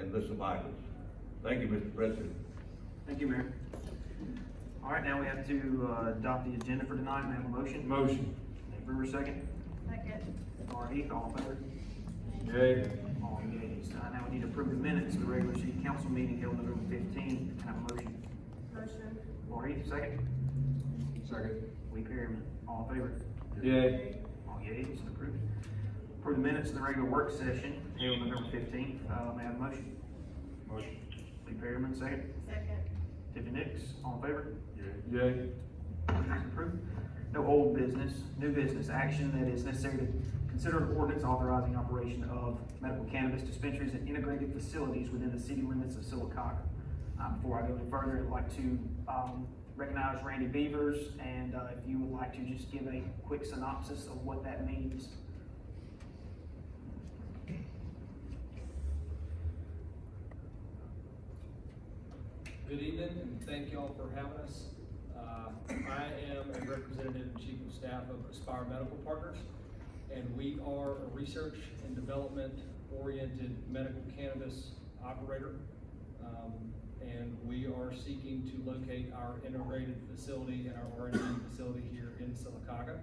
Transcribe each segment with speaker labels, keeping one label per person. Speaker 1: and list of items. Thank you, Mr. President.
Speaker 2: Thank you, Mayor. All right, now we have to uh, adopt the agenda for tonight. May I have a motion?
Speaker 3: Motion.
Speaker 2: Nate Brewer, second.
Speaker 4: Second.
Speaker 2: Laura Heath, all in favor?
Speaker 3: Yay.
Speaker 2: All yeas. Uh, Now we need to approve the minutes of the regular city council meeting held November fifteen. Can I have a motion?
Speaker 4: Motion.
Speaker 2: Laura Heath, second.
Speaker 3: Second.
Speaker 2: Lee Perryman, all in favor?
Speaker 3: Yay.
Speaker 2: All yeas, approved. Approve the minutes of the regular work session held November fifteenth. Uh, May I have a motion?
Speaker 3: Motion.
Speaker 2: Lee Perryman, second.
Speaker 4: Second.
Speaker 2: Tiffany Nix, all in favor?
Speaker 3: Yay.
Speaker 2: Ordinance approved. No old business, new business action that is necessary to consider an ordinance authorizing operation of medical cannabis dispensaries and integrated facilities within the city limits of Silicaca. Uh, before I go any further, I'd like to, um, recognize Randy Beavers, and, uh, if you would like to just give a quick synopsis of what that means.
Speaker 5: Good evening, and thank y'all for having us. Uh, I am a representative and chief of staff of Aspire Medical Partners, and we are a research and development-oriented medical cannabis operator. Um, And we are seeking to locate our integrated facility and our R and D facility here in Silicaca.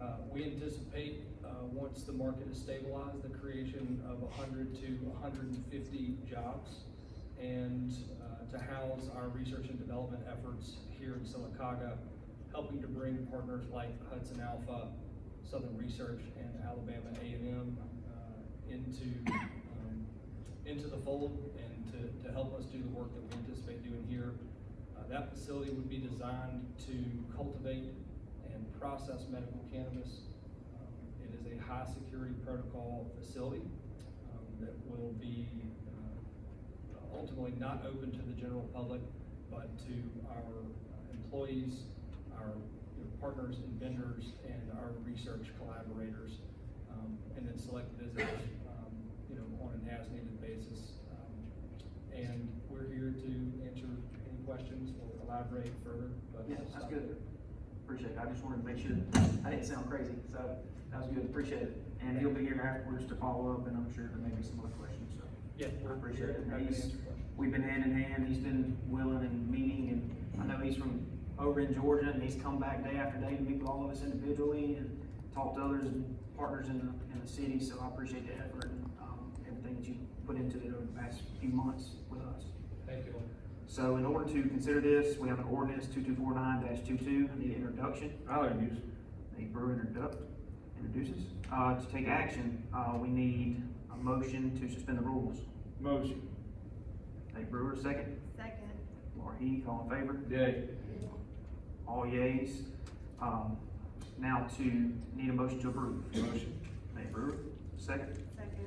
Speaker 5: Uh, We anticipate, uh, once the market is stabilized, the creation of hundred to hundred and fifty jobs and uh, to house our research and development efforts here in Silicaca, helping to bring partners like Hudson Alpha, Southern Research, and Alabama A and M uh, into, um, into the fold and to, to help us do the work that we anticipate doing here. Uh, That facility would be designed to cultivate and process medical cannabis. Um, It is a high-security protocol facility um, that will be uh, ultimately not open to the general public, but to our uh, employees, our you know, partners and vendors, and our research collaborators, um, and then select visitors, um, you know, on an as-needed basis. Um, And we're here to answer any questions or elaborate further, but.
Speaker 2: Yeah, that's good. Appreciate it. I just wanted to make sure I didn't sound crazy, so that was good. Appreciate it. And he'll be here afterwards to follow up, and I'm sure there may be some other questions, so. I
Speaker 5: Yeah, we're
Speaker 2: appreciate it.
Speaker 5: happy to
Speaker 2: He's,
Speaker 5: answer questions.
Speaker 2: we've been hand in hand, he's been willing and meeting, and I know he's from over in Georgia, and he's come back day after day to meet with all of us individually and talk to others and partners in the, in the city, so I appreciate the effort and, um, everything that you put into it over the past few months with us.
Speaker 5: Thank you all.
Speaker 2: So in order to consider this, we have an ordinance two-two-four-nine 22 I need an introduction.
Speaker 3: I'll introduce.
Speaker 2: Nate Brewer introduct, introduces. Uh, to take action, uh, we need a motion to suspend the rules.
Speaker 3: Motion.
Speaker 2: Nate Brewer, second.
Speaker 4: Second.
Speaker 2: Laura Heath, all in favor?
Speaker 3: Yay.
Speaker 2: All yeas. Um, now to, need a motion to approve.
Speaker 3: Motion.
Speaker 2: Nate Brewer, second.
Speaker 4: Second.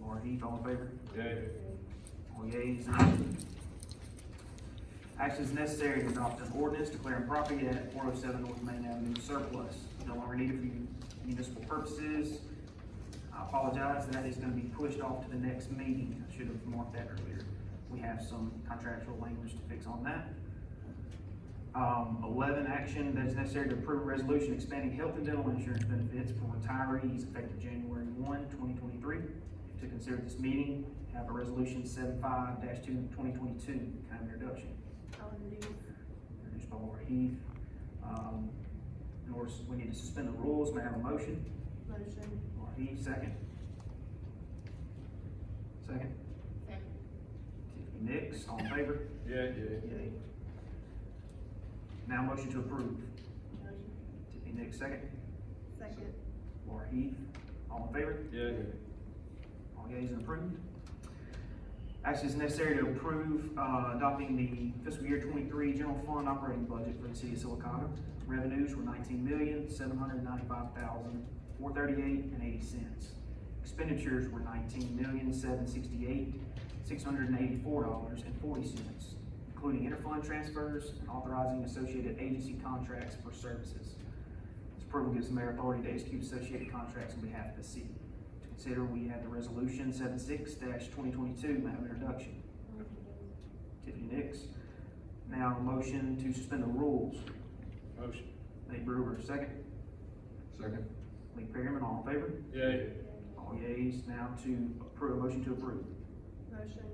Speaker 2: Laura Heath, all in favor?
Speaker 3: Yay.
Speaker 2: All yeas. none. Actions necessary to adopt an ordinance declaring property at four oh seven North Main Avenue surplus, no longer needed for municipal purposes. I apologize, that is gonna be pushed off to the next meeting, I should have marked that earlier. We have some contractual language to fix on that. Um, eleven, action that is necessary to approve a resolution expanding health and dental insurance benefits for retirees effective January 1, 2023. To consider this meeting, have a resolution seven-five dash two, twenty twenty-two, kind of introduction,
Speaker 4: I'll introduce.
Speaker 2: introduced by Laura Heath. Um, in order, we need to suspend the rules, may I have a motion?
Speaker 4: Motion.
Speaker 2: Laura Heath, second. Second,
Speaker 4: Second.
Speaker 2: Tiffany Nix, all in favor?
Speaker 3: Yay. Yay.
Speaker 2: Yay. Now motion to approve,
Speaker 4: Motion.
Speaker 2: Tiffany Nix, second.
Speaker 4: Second.
Speaker 2: Laura Heath, all in favor?
Speaker 3: Yay.
Speaker 2: All yeas and approved. Action is necessary to approve, uh, adopting the fiscal year twenty-three general fund operating budget for the city of Silicaca. Revenues were nineteen million, seven hundred ninety-five thousand, four thirty-eight and eighty cents. Expenditures were nineteen million, seven sixty-eight, six hundred and eighty-four dollars and forty cents, including interfund transfers and authorizing associated agency contracts for services. This approval gives the mayor authority to execute associated contracts on behalf of the city. To consider, we have the resolution seven-six twenty-twenty-two, may I have an introduction?
Speaker 4: I'll introduce.
Speaker 2: Tiffany Nix. Now, a motion to suspend the rules.
Speaker 3: Motion.
Speaker 2: Nate Brewer, second.
Speaker 3: Second.
Speaker 2: Lee Perryman, all in favor?
Speaker 3: Yay.
Speaker 2: All yeas. Now to approve, motion to approve.
Speaker 4: Motion.